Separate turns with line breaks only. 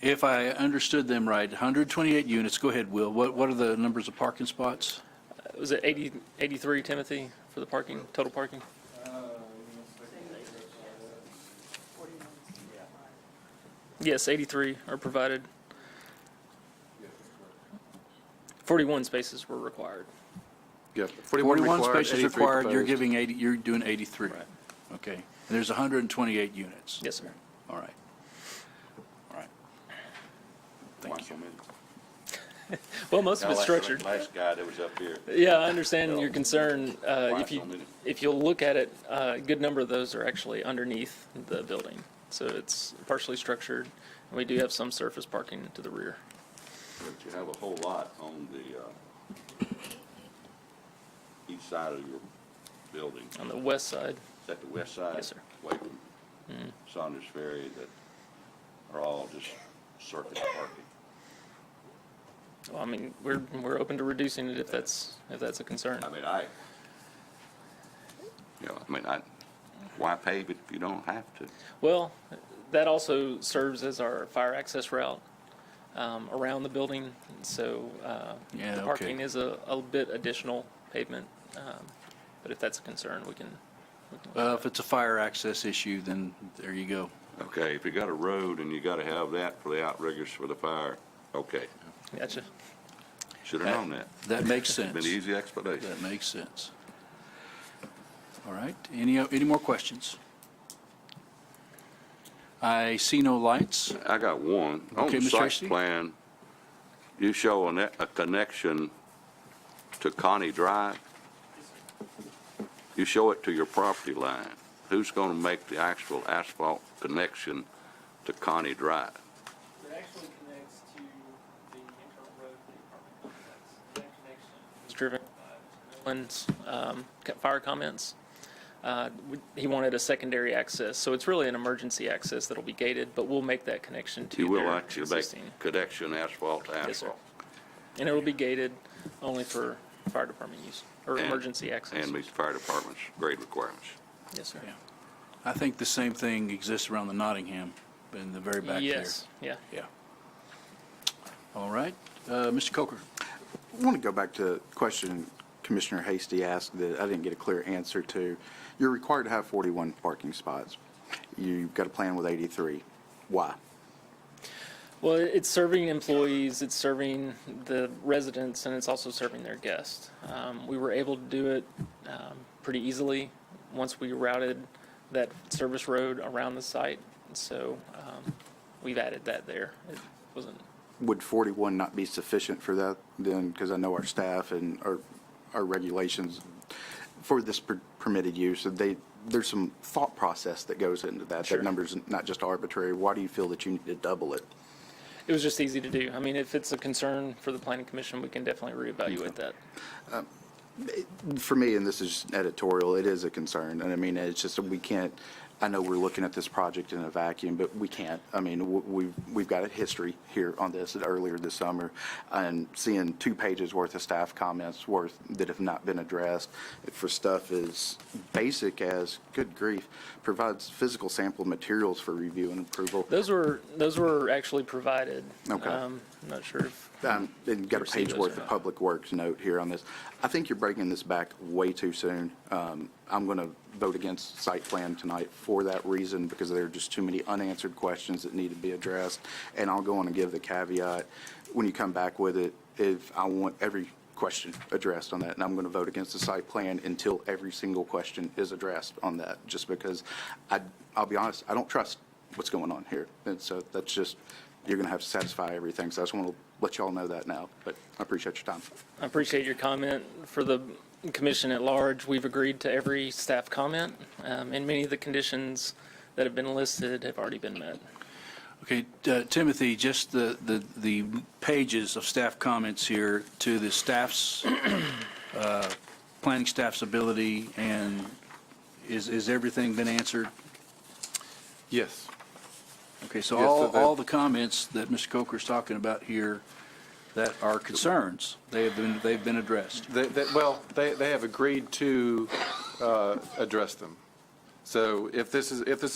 If I understood them right, 128 units, go ahead, Will, what, what are the numbers of parking spots?
Was it 80, 83, Timothy, for the parking, total parking? Yes, 83 are provided. 41 spaces were required.
Yeah,
41
required,
spaces
83
required, you're
proposed.
giving 80, you're doing 83.
Right.
Okay, and there's 128 units?
Yes, sir.
All right. All right. Thank you.
Well, most of it's
Kinda like the
structured.
Last guy that was up here.
Yeah, I understand your concern. Uh,
Why
If you,
so many?
if you'll look at it, uh, a good number of those are actually underneath the building. So it's partially structured, and we do have some surface parking to the rear.
But you have a whole lot on the, uh, east side of your building.
On the west side,
Is that the west side?
Yes, sir.
Away from Saunders Ferry that are all just surface parking.
well, I mean, we're, we're open to reducing it if that's, if that's a concern.
I mean, I, you know, I mean, I, why pave it if you don't have to?
Well, that also serves as our fire access route um, around the building, so uh,
Yeah,
the
okay.
parking is a, a bit additional pavement. um, But if that's a concern, we can, we can
Uh, If it's a fire access issue, then there you go.
Okay, if you got a road and you gotta have that for the outriggers for the fire, okay,
Gotcha.
should've known that.
That makes sense.
Been an easy explanation.
That makes sense. All right, any, any more questions? I see no lights.
I got one. On
Okay,
the
Mr.
site
Hasty.
plan, you show a, ne- a connection to Connie Drive. You show it to your property line. Who's gonna make the actual asphalt connection to Connie Drive?
It actually connects to the internal road for the apartment complex. That connection
It's driven. One's, um, co- fire comments. Uh, we- He wanted a secondary access, so it's really an emergency access that'll be gated, but we'll make that connection to
You will
their
actually
existing.
make connection asphalt to
Yes, sir.
asphalt.
And it'll be gated only for fire department use, or
And-
emergency access.
And meet the fire department's grade requirements.
Yes, sir.
Yeah. I think the same thing exists around the Nottingham in the very back there.
Yes, yeah.
Yeah. All right, uh, Mr. Coker.
I want to go back to a question Commissioner Hasty asked that I didn't get a clear answer to. You're required to have 41 parking spots. You've got a plan with 83. Why?
Well, it's serving employees, it's serving the residents, and it's also serving their guests. Um, we were able to do it, um, pretty easily once we routed that service road around the site. So, um, we've added that there. It wasn't,
Would 41 not be sufficient for that then? Because I know our staff and our, our regulations for this per- permitted use, that they, there's some thought process that goes into that.
Sure.
That number's not just arbitrary. Why do you feel that you need to double it?
it was just easy to do. I mean, if it's a concern for the planning commission, we can definitely reevaluate that.
for me, and this is editorial, it is a concern. And I mean, it's just, that we can't, I know we're looking at this project in a vacuum, but we can't. I mean, w- we've, we've got a history here on this earlier this summer and seeing two pages worth of staff comments worth that have not been addressed for stuff as basic as, good grief, provides physical sample materials for review and approval.
Those were, those were actually provided.
Okay.
Um, I'm not sure if
um, and got a
Receive
page
those
worth
or
of
not.
public works note here on this. I think you're breaking this back way too soon. Um, I'm going to vote against site plan tonight for that reason, because there are just too many unanswered questions that need to be addressed. And I'll go on and give the caveat, when you come back with it, if I want every question addressed on that, and I'm going to vote against the site plan until every single question is addressed on that, just because I, I'll be honest, I don't trust what's going on here. And so that's just, you're going to have to satisfy everything. So I just want to let y'all know that now, but I appreciate your time.
I appreciate your comment. For the commission at large, we've agreed to every staff comment, um, and many of the conditions that have been listed have already been met.
Okay, uh, Timothy, just the, the, the pages of staff comments here to the staff's, uh, planning staff's ability, and is, is everything been answered?
Yes.
Okay, so
Yes, so
all,
that-
all the comments that Mr. Coker's talking about here that are concerns, they have been, they've been addressed.
They, they, well, they, they have agreed to, uh, address them. So if this is, if this